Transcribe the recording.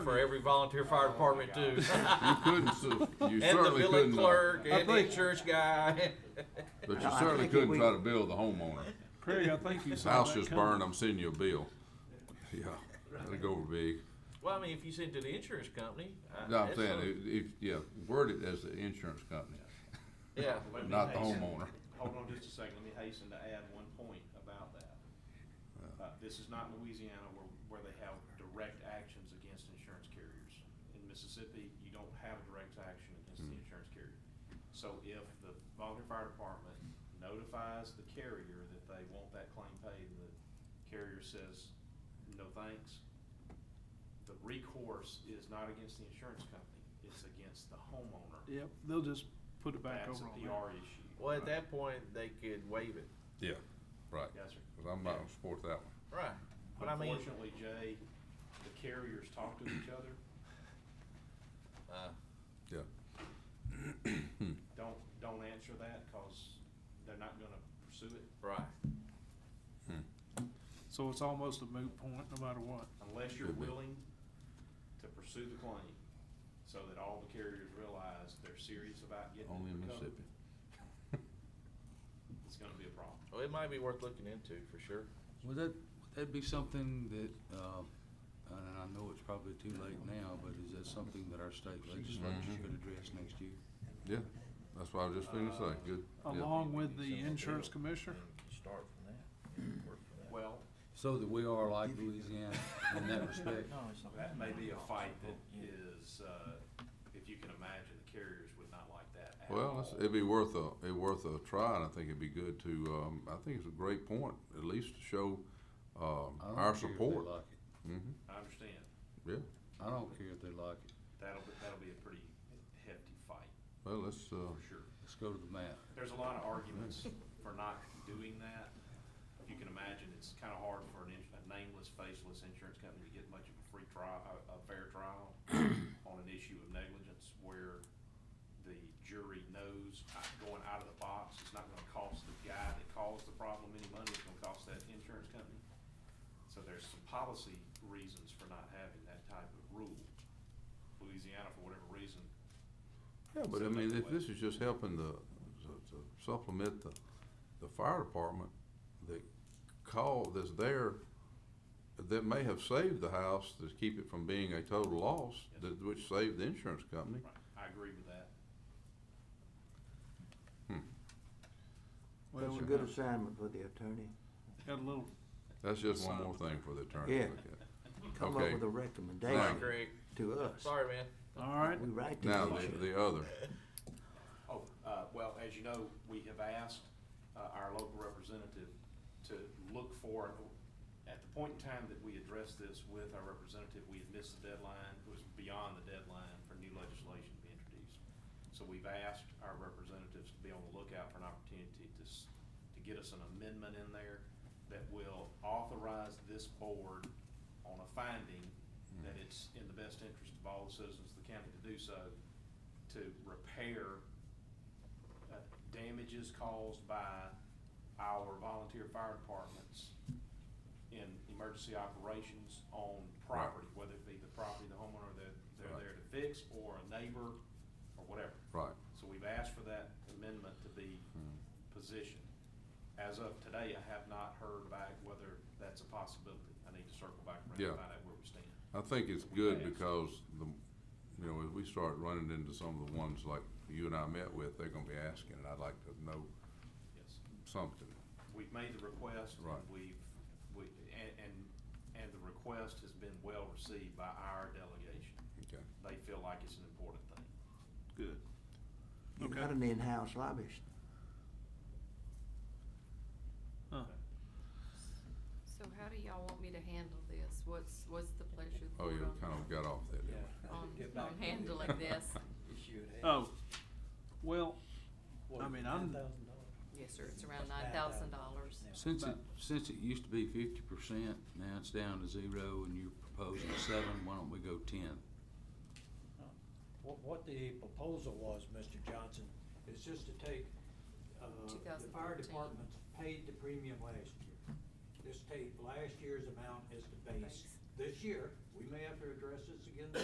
for every volunteer fire department too. You couldn't, su- you And the certainly billing couldn't, uh, clerk and the think- insurance guy. but No, you I certainly think if couldn't we- try to bill the homeowner. Craig, I think you His saw house that just coming. burned, I'm sending you a bill. Yeah, that'd go over big. Well, I mean, if you send to the insurance company. I- No, I'm that's saying, a- if- if, yeah, word it as the insurance company, Yeah, Let me not the hasten- homeowner. Hold on just a second, let me hasten to add one point about that. Uh, this is not Louisiana where, where they have direct actions against insurance carriers. In Mississippi, you don't have a direct action against Hmm. the insurance carrier. So if the volunteer fire department notifies the carrier that they want that claim paid, and the carrier says, no thanks, the recourse is not against the insurance company, it's against the homeowner. Yep, they'll just put it back That's a over on there. PR issue. well, at that point, they could waive it. Yeah. Right, Yes, sir. because I'm not gonna support that one. Right. But I mean, Unfortunately, Jay, the carriers talk to each other. uh, Yeah. Don't, don't answer that because they're not gonna pursue it right. So it's almost a moot point, no matter what. unless you're Could be. willing to pursue the claim. So that all the carriers realize they're serious about getting Only it in recovered. Mississippi. It's gonna be a problem. Well, it might be worth looking into for sure. Would that, would that be something that, uh, and I know it's probably too late now, but is that something that our state legislature Mhm. could address next year? Yeah, that's what I was just finna say, good. yeah. Along with the insurance commissioner, Start from that, and work from that. Well, So that we are like Louisiana in that respect? No, it's not. that may be a fight that is, uh, if you can imagine, the carriers would not like that at all. Well, it's- it'd be worth a, it'd worth a try, and I think it'd be good to, um, I think it's a great point, at least to show, um, I don't our care if they support. like it. Mm-hmm, I understand. yeah, I don't care if they like it. That'll, be- that'll be a pretty hefty fight, well, let's, uh, for sure. Let's go to the map. There's a lot of arguments for not doing that. If you can imagine, it's kind of hard for an ins- a nameless, faceless insurance company to get much of a free trial, a, a fair trial on an issue of negligence where the jury knows uh, going out of the box, it's not gonna cost the guy that caused the problem any money, it's gonna cost that insurance company. So there's some policy reasons for not having that type of rule. Louisiana, for whatever reason, Yeah, but I Send that mean, to if Wes. this is just helping the, to- to supplement the, the fire department, the call that's there, that may have saved the house, to keep it from being a total loss, Yes. that, which saved the insurance company. right, I agree with that. Well, That's a we- good assignment for the attorney. got a little, That's just one more thing for the attorney Yeah. to look at. Come up Okay. with a Sorry, Right. recommendation Greg. to us. Sorry, man. all right, We write to Now, the the, issue. the other, Oh, uh, well, as you know, we have asked, uh, our local representative to look for, at the point in time that we addressed this with our representative, we had missed the deadline, it was beyond the deadline for new legislation to be introduced. So we've asked our representatives to be on the lookout for an opportunity to, s- to get us an amendment in there that will authorize this board on a finding that it's in the best interest of all the citizens of the county to do so, to repair uh, damages caused by our volunteer fire departments in emergency operations on property, whether it be the property the homeowner that they're Right. there to fix, or a neighbor, or whatever. right, So we've asked for that amendment to be Hmm. positioned. As of today, I have not heard back whether that's a possibility. I need to circle back around Yeah. and find out where we stand. I think it's good because the, you know, if we start running into some of the ones like you and I met with, they're gonna be asking, and I'd like to know Yes. something, We've made the request. and Right. We've, we, and, and, and the request has been well received by our delegation. okay? They feel like it's an important thing. good. You Okay. got an in-house lobbyist. Huh. So how do y'all want me to handle this? What's, what's the pleasure of the Oh, board you on- kind of got off that, didn't we? on- Get back on to handling this? Issue at hand. Oh, well, I mean, I'm- $10,000. Yes, sir, it's around nine $9,000 thousand dollars. now. Since it, since it used to be fifty percent, now it's down to zero and you're proposing seven, why don't we go ten? What, what the proposal was, Mr. Johnson, is just to take, uh, the fire 2014. departments paid the premium last year. Just take last year's amount as the base. Base. This year, we we may have to address this again